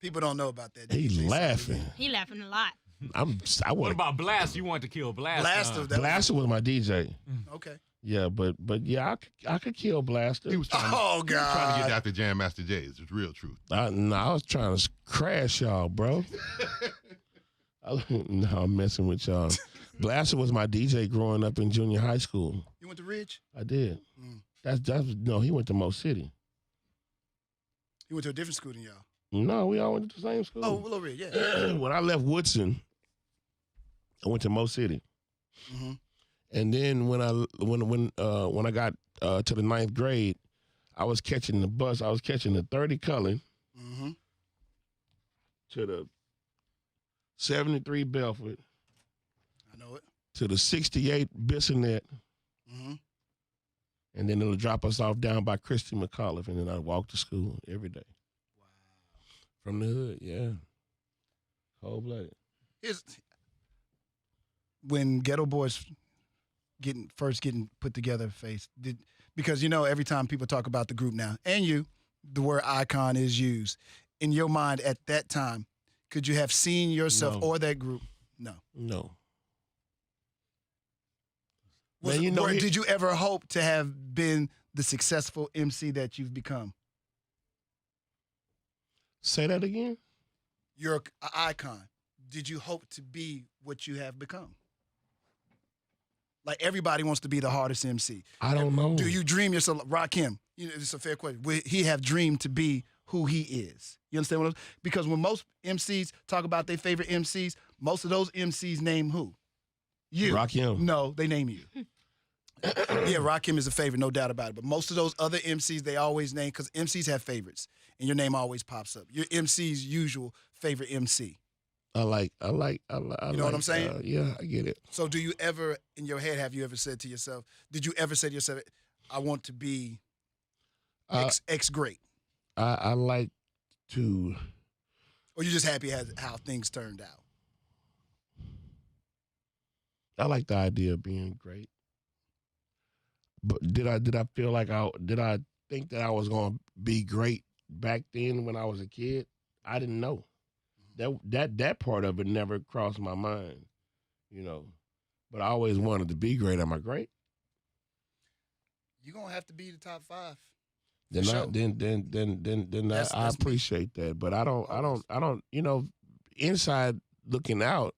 People don't know about that. He DJ Sunday. laughing. He laughing a lot. I'm. I What want about Blast? You want to kill Blast? Blaster. uh, That Blaster was my DJ. Was, okay. Yeah, but but yeah, I, c- I could kill Blaster. He was trying, Oh he was trying to get God. after Jam Master Jay's. It's real truth. I, no, I was trying to s- crash y'all, bro. I, no, I'm messing with y'all. Blaster was my DJ growing up in junior high school. You went to Ridge. I did. Mm. That's that's no. He went to Mo City. You went to a different school than y'all. No, we all went to the same school. Oh, Willow Ridge. Yeah. when I left Woodson, I went to Mo City, hmm and then when I when when uh, when I got uh, to the ninth grade, I was catching the bus. I was catching the thirty Cullen hmm to the seventy three Belford I know it. to the sixty eight Bissonnette, hmm and then it'll drop us off down by Christy McAuliffe, and then I walk to school every day. From the hood, yeah, cold blooded. Here's when Ghetto Boys getting first getting put together. Face did because you know every time people talk about the group now and you, the word icon is used. In your mind at that time, could you have seen yourself No. or that group? No. No, Was, Man, you know were- he- did you ever hope to have been the successful MC that you've become? say that again. You're an icon. Did you hope to be what you have become? Like everybody wants to be the hardest MC. I don't know. Do you dream yourself rock him? You know, it's a fair question. Would he have dreamed to be who he is? You understand what I'm Because when most MCs talk about their favorite MCs, most of those MCs name who? You. rock him? No, they name you. yeah, Rakim is a favorite, no doubt about it. But most of those other MCs, they always name because MCs have favorites, and your name always pops up. Your MC's usual favorite MC. I like, I like, I like. I You know what I'm like, saying? uh, yeah, I get it. So, do you ever, in your head, have you ever said to yourself, did you ever say to yourself, I want to be I, X, X great? I, I like to. Or you just happy as how things turned out? I like the idea of being great. But did I did I feel like I did I think that I was gonna be great back then when I was a kid? I didn't know. That that that part of it never crossed my mind, you know. But I always wanted to be great. Am I great? You're going to have to be the top five. Then For I, sure. then then then then then That's- I, I that's me. appreciate that. But I don't I don't I don't you know inside looking out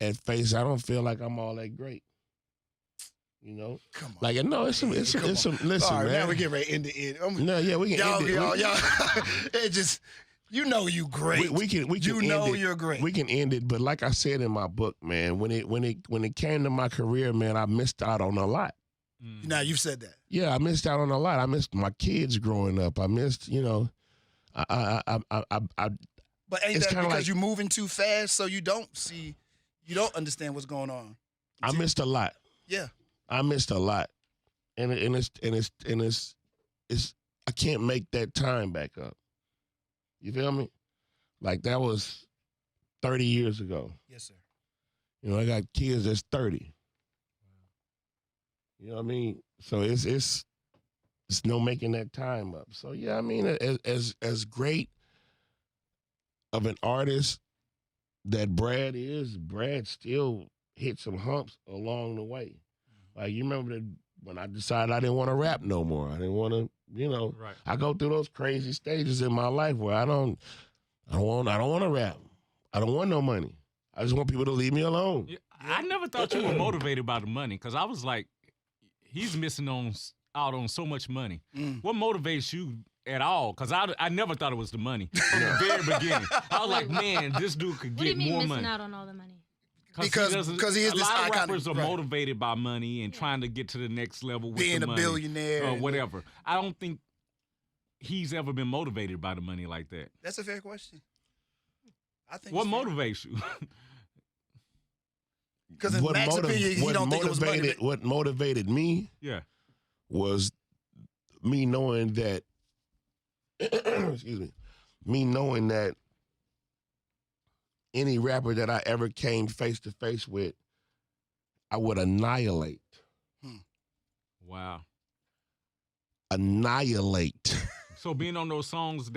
at face I don't feel like I'm all that great. You know, Come on. like no, it's some it's some, Come it's some listen All right, man. now we get ready to end the end. I'm- no, yeah, we can y'all, end it. y'all, we, y'all. it just, you know you great. We, we can we can you end know it. you're great. we can end it. But like I said in my book, man, when it when it when it came to my career, man, I missed out on a lot. mm. now you've said that. Yeah, I missed out on a lot. I missed my kids growing up. I missed you know, I I I I, I, I But ain't It's that kinda because like- you're moving too fast, so you don't see, you don't understand what's going on? I Did- missed a lot. Yeah. I missed a lot, and it- and it's and it's and it's it's I can't make that time back up. You feel me? Like that was thirty years ago. Yes, sir. You know, I got kids that's thirty. You know what I mean? So it's it's it's no making that time up. So yeah, I mean, as as as great of an artist that Brad is, Brad still hit some humps along the way. Like you remember that when I decided I didn't want to rap no more. I didn't want to, you know. Right. I go through those crazy stages in my life where I don't, I don't want, I don't want to rap. I don't want no money. I just want people to leave me alone. Yeah, I never thought you were motivated by the money because I was like, he's missing on s- out on so much money. Mm. What motivates you at all? Because I, I never thought it was the money from the very beginning. I was like, man, this dude could What do you get mean more missing money. out on all the money? Because- doesn't- 'cause he is a this lot iconic- of rappers are right. motivated by money and trying to get to the next level with Being a the money billionaire. Oh, or and- whatever. I don't think he's ever been motivated by the money like that. That's a fair question. I think What it's fair. motivates you? Because in What Max's motiv- opinion, he what don't think it was money. motivated- but- What motivated me yeah. was me knowing that excuse me me knowing that any rapper that i ever came face to face with i would annihilate Wow. annihilate So being on those songs